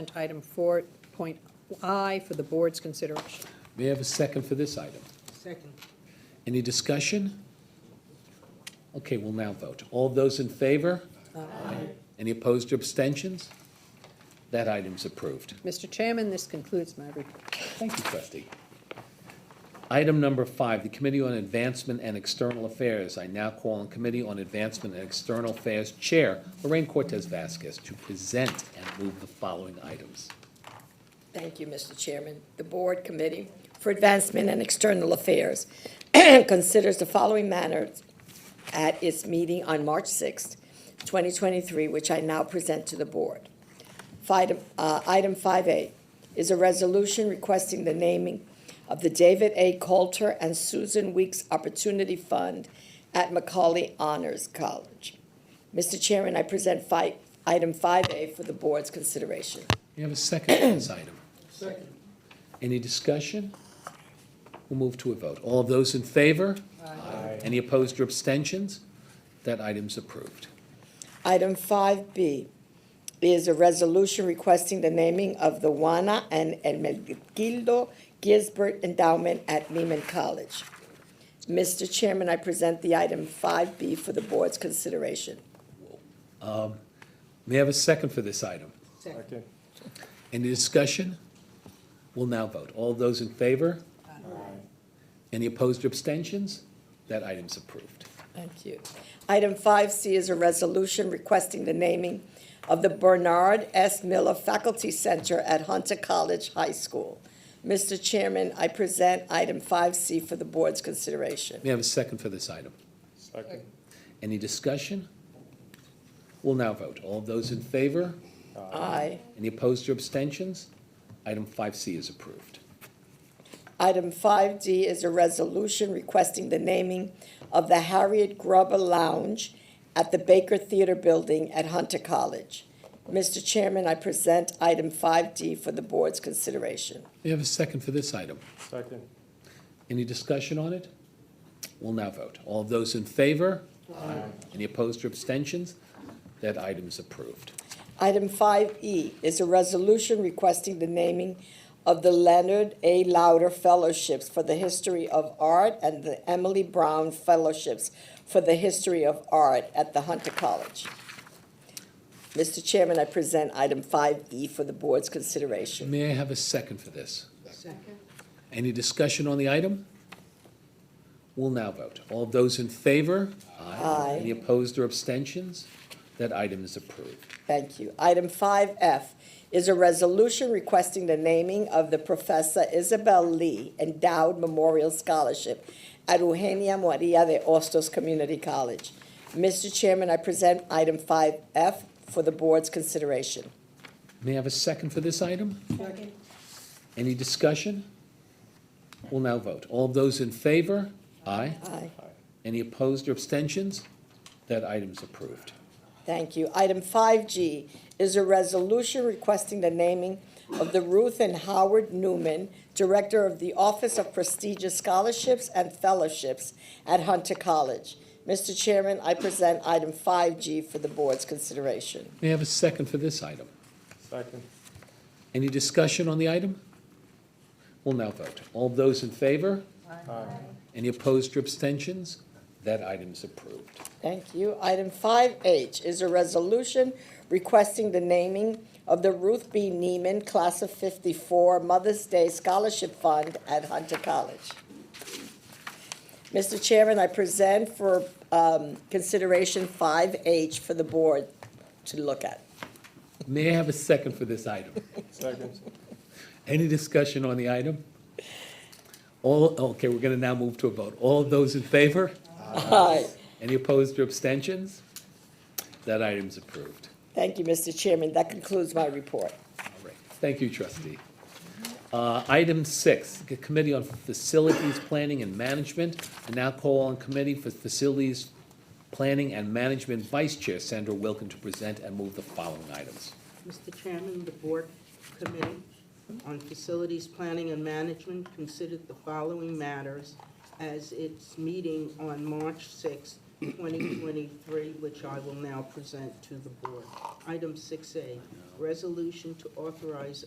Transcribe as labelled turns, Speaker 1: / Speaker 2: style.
Speaker 1: And item four point I for the board's consideration.
Speaker 2: May I have a second for this item?
Speaker 3: Second.
Speaker 2: Any discussion? Okay, we'll now vote. All those in favor? Aye. Any opposed or abstentions? That item's approved.
Speaker 1: Mr. Chairman, this concludes my report.
Speaker 2: Thank you, trustee. Item number five, the Committee on Advancement and External Affairs. I now call on Committee on Advancement and External Affairs Chair Lorraine Cortez Vasquez to present and move the following items.
Speaker 4: Thank you, Mr. Chairman. The Board Committee for Advancement and External Affairs considers the following matters at its meeting on March 6th, 2023, which I now present to the Board. Five- uh, Item 5A is a resolution requesting the naming of the David A. Coulter and Susan Weeks Opportunity Fund at Macaulay Honors College. Mr. Chairman, I present fi- item 5A for the Board's consideration.
Speaker 2: We have a second for this item.
Speaker 3: Second.
Speaker 2: Any discussion? We'll move to a vote. All those in favor? Aye. Any opposed or abstentions? That item's approved.
Speaker 4: Item 5B is a resolution requesting the naming of the Juana and Hermenegildo Gisbert Endowment at Lehman College. Mr. Chairman, I present the item 5B for the board's consideration.
Speaker 2: May I have a second for this item?
Speaker 3: Second.
Speaker 2: Any discussion? We'll now vote. All those in favor? Aye. Any opposed or abstentions? That item's approved.
Speaker 4: Thank you. Item 5C is a resolution requesting the naming of the Bernard S. Miller Faculty Center at Hunter College High School. Mr. Chairman, I present item 5C for the board's consideration.
Speaker 2: May I have a second for this item?
Speaker 3: Second.
Speaker 2: Any discussion? We'll now vote. All those in favor?
Speaker 4: Aye.
Speaker 2: Any opposed or abstentions? Item 5C is approved.
Speaker 4: Item 5D is a resolution requesting the naming of the Harriet Gruber Lounge at the Baker Theater Building at Hunter College. Mr. Chairman, I present item 5D for the board's consideration.
Speaker 2: May I have a second for this item?
Speaker 3: Second.
Speaker 2: Any discussion on it? We'll now vote. All those in favor? Any opposed or abstentions? That item's approved.
Speaker 4: Item 5E is a resolution requesting the naming of the Leonard A. Lauder Fellowships for the History of Art and the Emily Brown Fellowships for the History of Art at the Hunter College. Mr. Chairman, I present item 5E for the board's consideration.
Speaker 2: May I have a second for this?
Speaker 3: Second.
Speaker 2: Any discussion on the item? We'll now vote. All those in favor?
Speaker 4: Aye.
Speaker 2: Any opposed or abstentions? That item is approved.
Speaker 4: Thank you. Item 5F is a resolution requesting the naming of the Professor Isabel Lee Endowed Memorial Scholarship at Eugenia Maria de Ostos Community College. Mr. Chairman, I present item 5F for the board's consideration.
Speaker 2: May I have a second for this item? Any discussion? We'll now vote. All those in favor? Aye.
Speaker 4: Aye.
Speaker 2: Any opposed or abstentions? That item's approved.
Speaker 4: Thank you. Item 5G is a resolution requesting the naming of the Ruth and Howard Newman, Director of the Office of Prestigious Scholarships and Fellowships at Hunter College. Mr. Chairman, I present item 5G for the board's consideration.
Speaker 2: May I have a second for this item?
Speaker 3: Second.
Speaker 2: Any discussion on the item? We'll now vote. All those in favor?
Speaker 3: Aye.
Speaker 2: Any opposed or abstentions? That item's approved.
Speaker 4: Thank you. Item 5H is a resolution requesting the naming of the Ruth B. Neiman Class of 54 Mother's Day Scholarship Fund at Hunter College. Mr. Chairman, I present for um, consideration 5H for the board to look at.
Speaker 2: May I have a second for this item?
Speaker 3: Second.
Speaker 2: Any discussion on the item? All, okay, we're going to now move to a vote. All those in favor?
Speaker 4: Aye.
Speaker 2: Any opposed or abstentions? That item's approved.
Speaker 4: Thank you, Mr. Chairman. That concludes my report.
Speaker 2: All right. Thank you, trustee. Uh, Item six, the Committee on Facilities Planning and Management. I now call on Committee for Facilities Planning and Management Vice Chair Sandra Wilken to present and move the following items.
Speaker 5: Mr. Chairman, the Board Committee on Facilities Planning and Management considered the following matters as its meeting on March 6, 2023, which I will now present to the board. Item 6A, resolution to authorize